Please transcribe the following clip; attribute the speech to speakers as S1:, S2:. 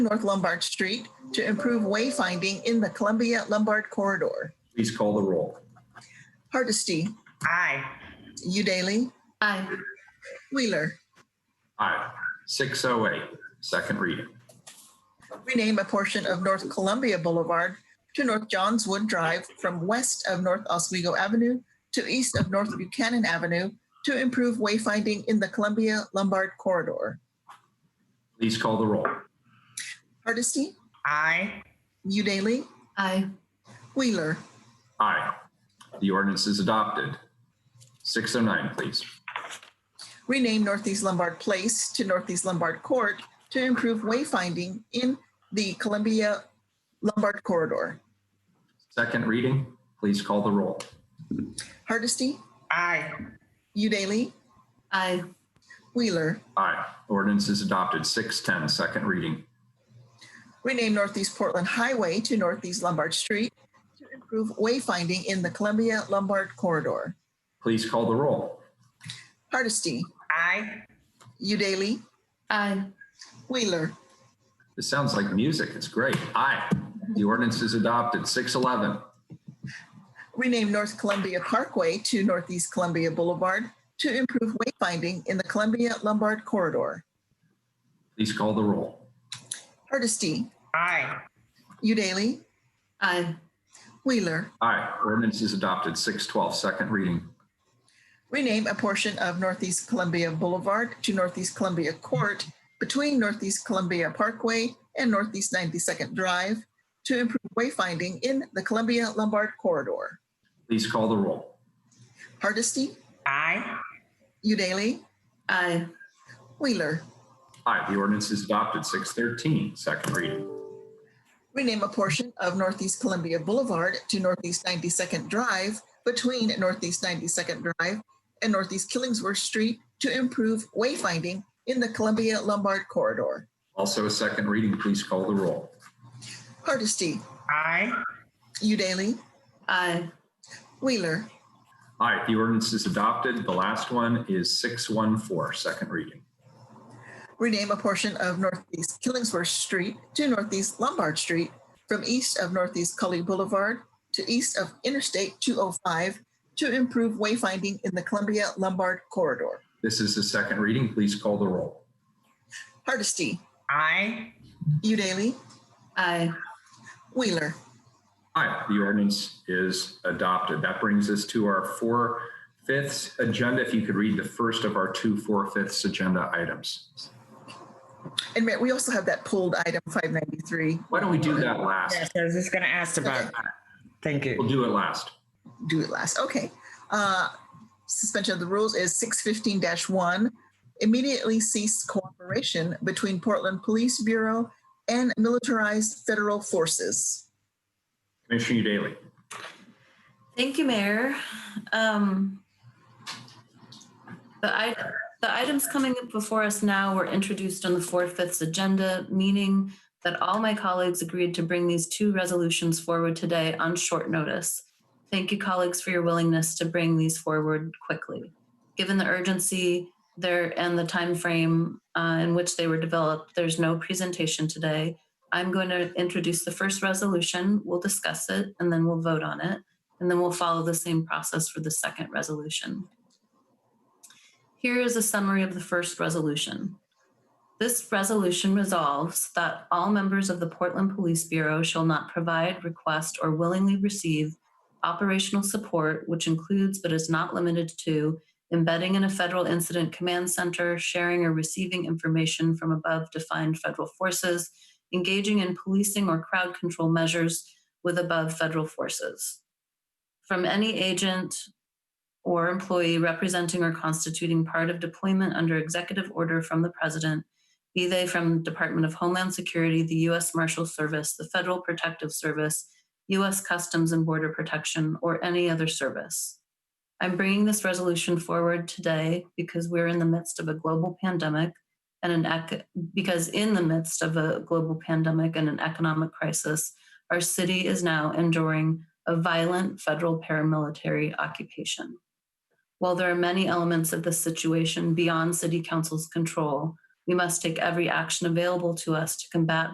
S1: North Lombard Street to improve wayfinding in the Columbia Lombard corridor.
S2: Please call the roll.
S1: Hardesty,
S3: Aye.
S1: Udaly,
S3: Aye.
S1: Wheeler.
S2: Aye. 608, second reading.
S1: Rename a portion of North Columbia Boulevard to North Johns Wood Drive from west of North Oswego Avenue to east of North Buchanan Avenue to improve wayfinding in the Columbia Lombard corridor.
S2: Please call the roll.
S1: Hardesty,
S3: Aye.
S1: Udaly,
S3: Aye.
S1: Wheeler.
S2: Aye. The ordinance is adopted. 609, please.
S1: rename Northeast Lombard Place to Northeast Lombard Court to improve wayfinding in the Columbia Lombard corridor.
S2: Second reading, please call the roll.
S1: Hardesty,
S3: Aye.
S1: Udaly,
S3: Aye.
S1: Wheeler,
S2: Aye. Ordinance is adopted. 610, second reading.
S1: rename Northeast Portland Highway to Northeast Lombard Street to improve wayfinding in the Columbia Lombard corridor.
S2: Please call the roll.
S1: Hardesty,
S3: Aye.
S1: Udaly,
S3: Aye.
S1: Wheeler,
S2: This sounds like music. It's great. Aye. The ordinance is adopted. 611,
S1: rename North Columbia Parkway to Northeast Columbia Boulevard to improve wayfinding in the Columbia Lombard corridor.
S2: please call the roll.
S1: Hardesty,
S3: Aye.
S1: Udaly,
S3: Aye.
S1: Wheeler,
S2: Aye. Ordinance is adopted. 612, second reading.
S1: rename a portion of Northeast Columbia Boulevard to Northeast Columbia Court between Northeast Columbia Parkway and Northeast 92nd Drive to improve wayfinding in the Columbia Lombard corridor.
S2: Please call the roll.
S1: Hardesty,
S3: Aye.
S1: Udaly,
S3: Aye.
S1: Wheeler.
S2: Aye. The ordinance is adopted. 613, second reading.
S1: Rename a portion of Northeast Columbia Boulevard to Northeast 92nd Drive between Northeast 92nd Drive and Northeast Killingsworth Street to improve wayfinding in the Columbia Lombard corridor.
S2: Also a second reading. Please call the roll.
S1: Hardesty,
S3: Aye.
S1: Udaly,
S3: Aye.
S1: Wheeler.
S2: All right, the ordinance is adopted. The last one is 614, second reading.
S1: rename a portion of Northeast Killingsworth Street to Northeast Lombard Street from east of Northeast Cully Boulevard to east of Interstate 205 to improve wayfinding in the Columbia Lombard corridor.
S2: This is the second reading. Please call the roll.
S1: Hardesty,
S3: Aye.
S1: Udaly,
S3: Aye.
S1: Wheeler.
S2: All right, the ordinance is adopted. That brings us to our four fifths agenda. If you could read the first of our two four fifths agenda items.
S1: And Mayor, we also have that pulled item 593.
S2: Why don't we do that last?
S4: Yes, I was just gonna ask about that. Thank you.
S2: We'll do it last.
S1: do it last. Okay. Uh, Suspension of the rules is six fifteen one. Immediately cease cooperation between Portland Police Bureau and militarized federal forces.
S2: Commissioner Daly.
S5: Thank you, Mayor. Um, The i- the items coming up before us now were introduced on the fourth, fifths agenda, meaning that all my colleagues agreed to bring these two resolutions forward today on short notice. Thank you, colleagues, for your willingness to bring these forward quickly. Given the urgency there and the time frame in which they were developed, there's no presentation today. I'm going to introduce the first resolution, we'll discuss it, and then we'll vote on it. And then we'll follow the same process for the second resolution. Here is a summary of the first resolution. This resolution resolves that all members of the Portland Police Bureau shall not provide, request, or willingly receive operational support, which includes but is not limited to embedding in a federal incident command center, sharing or receiving information from above defined federal forces, engaging in policing or crowd control measures with above federal forces from any agent or employee representing or constituting part of deployment under executive order from the president, be they from Department of Homeland Security, the U.S. Marshal Service, the Federal Protective Service, U.S. Customs and Border Protection, or any other service. I'm bringing this resolution forward today because we're in the midst of a global pandemic and an ec- because in the midst of a global pandemic and an economic crisis, our city is now enduring a violent federal paramilitary occupation. While there are many elements of this situation beyond City Council's control, we must take every action available to us to combat